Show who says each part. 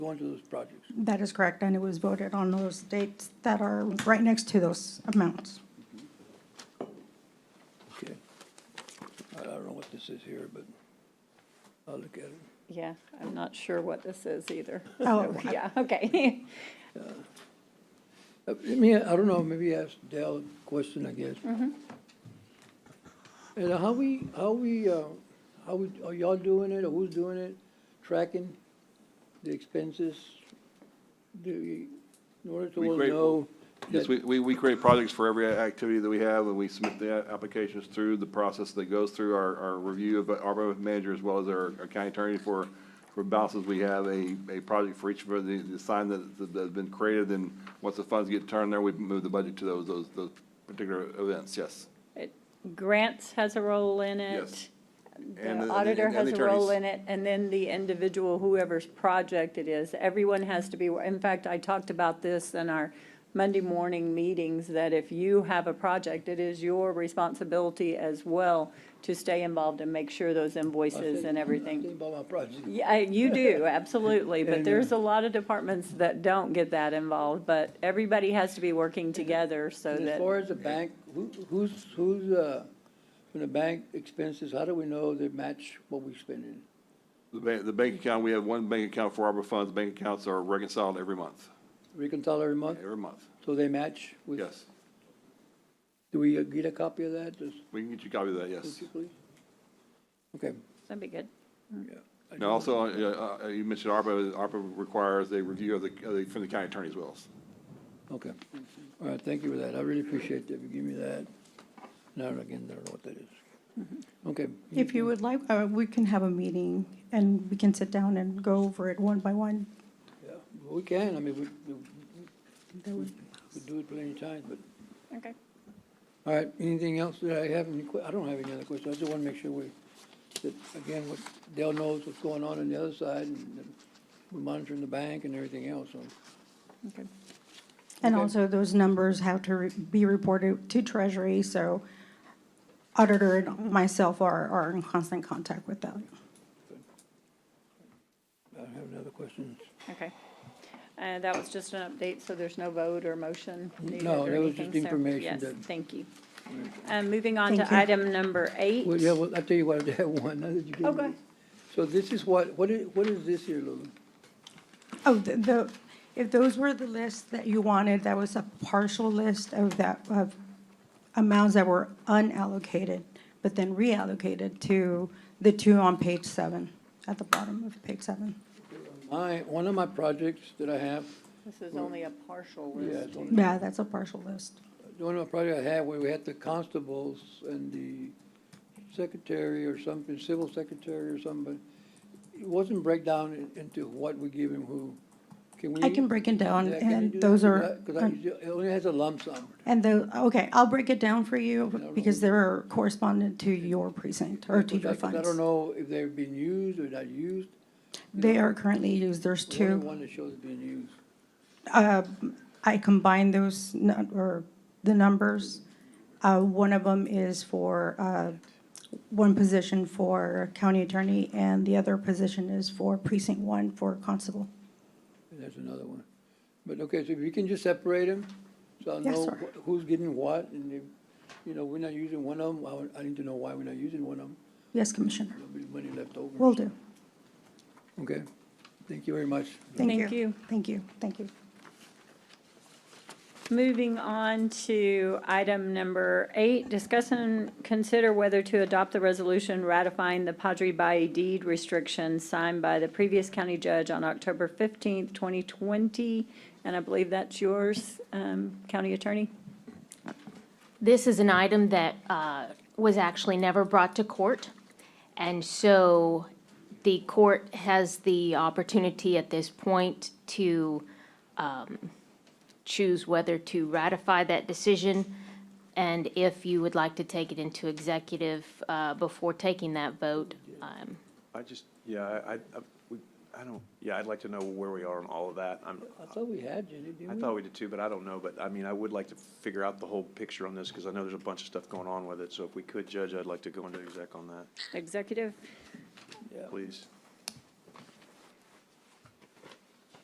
Speaker 1: go into those projects.
Speaker 2: That is correct, and it was voted on those dates that are right next to those amounts.
Speaker 1: Okay. I I don't know what this is here, but I'll look at it.
Speaker 3: Yeah, I'm not sure what this is either.
Speaker 2: Oh,
Speaker 3: So, Yeah, okay.
Speaker 1: Uh, I mean, I don't know, maybe ask Dale a question, I guess.
Speaker 3: Mm-hmm.
Speaker 1: And how we, how we, uh, how we, are y'all doing it, or who's doing it, tracking the expenses? Do you, in order to
Speaker 4: We
Speaker 1: all
Speaker 4: create-
Speaker 1: know?
Speaker 4: Yes,
Speaker 1: that-
Speaker 4: we, we, we create projects for every activity that we have, and we submit the a- applications through the process that goes through our, our review of our both manager as well as our our county attorney for, for balances. We have a, a project for each of the, the sign that, that's been created, and once the funds get turned there, we move the budget to those, those, those particular events, yes.
Speaker 3: It- Grants has a role in
Speaker 4: Yes.
Speaker 3: it.
Speaker 4: And
Speaker 3: The
Speaker 4: the-
Speaker 3: auditor
Speaker 4: and the
Speaker 3: has a role
Speaker 4: attorneys.
Speaker 3: in it, and then the individual, whoever's project it is, everyone has to be, in fact, I talked about this in our Monday morning meetings, that if you have a project, it is your responsibility as well to stay involved and make sure those
Speaker 1: I
Speaker 3: invoices
Speaker 1: think-
Speaker 3: and
Speaker 1: I
Speaker 3: everything
Speaker 1: think about my project.
Speaker 3: Yeah, you do, absolutely,
Speaker 1: And, uh,
Speaker 3: but there's a lot of departments that don't get that involved, but everybody has to be working together so
Speaker 1: And As
Speaker 3: that,
Speaker 1: far as the bank, who, who's, who's, uh, when the bank expenses, how do we know they match what we spending?
Speaker 4: The bank, the bank account, we have one bank account for ARPA funds, bank accounts are reconciled every month,
Speaker 1: Reconcile every month,
Speaker 4: every month,
Speaker 1: so they match with?
Speaker 4: yes.
Speaker 1: Do we uh, get a copy of that, just,
Speaker 4: We can get you a copy of that, yes.
Speaker 1: would you please? Okay,
Speaker 3: that'd be good.
Speaker 1: yeah. I
Speaker 4: Now, also, uh, uh, you mentioned ARPA, ARPA requires a review of the, of the- from the county attorney as well.
Speaker 1: Okay, all right, thank you for that, I really appreciate that, you give me that. Now, again, I don't know what that is. Okay,
Speaker 2: Mm-hmm. If you would like, uh, we can have a meeting and we can sit down and go over it one by one.
Speaker 1: yeah, we can, I mean, we, we-
Speaker 2: That would
Speaker 1: we do it plenty of times, but,
Speaker 3: Okay.
Speaker 1: all right, anything else that I have, any que- I don't have any other questions, I just wanna make sure we, that, again, what, Dale knows what's going on on the other side, and that we're monitoring the bank and everything else, so.
Speaker 3: Okay.
Speaker 2: And
Speaker 1: Okay.
Speaker 2: also, those numbers have to re- be reported to Treasury, so auditor and myself are, are in constant contact with them.
Speaker 1: I don't have any other questions.
Speaker 3: Okay. And that was just an update, so there's no vote or motion needed
Speaker 1: No,
Speaker 3: or
Speaker 1: that was just
Speaker 3: anything, so-
Speaker 1: information
Speaker 3: Yes,
Speaker 1: that-
Speaker 3: thank you. Um, moving on
Speaker 2: Thank
Speaker 3: to
Speaker 2: you.
Speaker 3: item number eight.
Speaker 1: Well, yeah, well, I'll tell you what, I have one, now that you gave me.
Speaker 3: Okay.
Speaker 1: So this is what, what is, what is this here, Lulu?
Speaker 2: Oh, the- the, if those were the lists that you wanted, that was a partial list of that, of amounts that were unallocated, but then reallocated to the two on page seven, at the bottom of page seven.
Speaker 1: My, one of my projects that I have,
Speaker 3: This is only a partial
Speaker 1: yeah,
Speaker 3: list.
Speaker 1: it's on-
Speaker 2: Yeah, that's a partial list.
Speaker 1: one of my projects I had where we had the constables and the secretary or something, civil secretary or something, but it wasn't break down in- into what we give him who. Can we?
Speaker 2: I can break it down,
Speaker 1: Yeah, can you do
Speaker 2: and
Speaker 1: that?
Speaker 2: those are.
Speaker 1: Because I, 'cause I- it only has a lump sum.
Speaker 2: And the, okay, I'll break it down for you because they're correspondent to your precinct or to
Speaker 1: Because I-
Speaker 2: your
Speaker 1: 'cause I
Speaker 2: funds.
Speaker 1: don't know if they're being used or not used.
Speaker 2: They are currently used, there's
Speaker 1: There's only
Speaker 2: two.
Speaker 1: One that shows being used.
Speaker 2: I combined those, nu- or the numbers. Uh, One of them is for, uh, one position for county attorney and the other position is for precinct one for constable.
Speaker 1: And There's another one. But, okay, so if you can just separate them, so I'll
Speaker 2: Yes,
Speaker 1: know
Speaker 2: sir.
Speaker 1: wh- who's getting what, and if, you know, we're not using one of them, I, would- I need to know why we're not using one of them.
Speaker 2: Yes, Commissioner,
Speaker 1: There'll be money left over.
Speaker 2: will do.
Speaker 1: Okay, thank you very much.
Speaker 2: Thank
Speaker 3: Thank
Speaker 2: you.
Speaker 3: you.
Speaker 2: Thank you, thank you.
Speaker 3: Moving on to item number eight, discuss and consider whether to adopt the resolution ratifying the Padre Bay deed restriction signed by the previous county judge on October fifteenth, twenty twenty. And I believe that's yours, um, county attorney?
Speaker 5: This is an item that uh, was actually never brought to court, and so the court has the opportunity at this point to um, choose whether to ratify that decision, and if you would like to take it into executive uh, before taking that vote. um,
Speaker 6: I just, yeah, I, I, I- we, I don't, yeah, I'd like to know where we are on all of that. I'm,
Speaker 1: I thought we had Jenny, didn't we?
Speaker 6: I thought we did too, but I don't know, but I mean, I would like to figure out the whole picture on this, because I know there's a bunch of stuff going on with it, so if we could, Judge, I'd like to go into exec on that,
Speaker 3: Executive?
Speaker 6: please.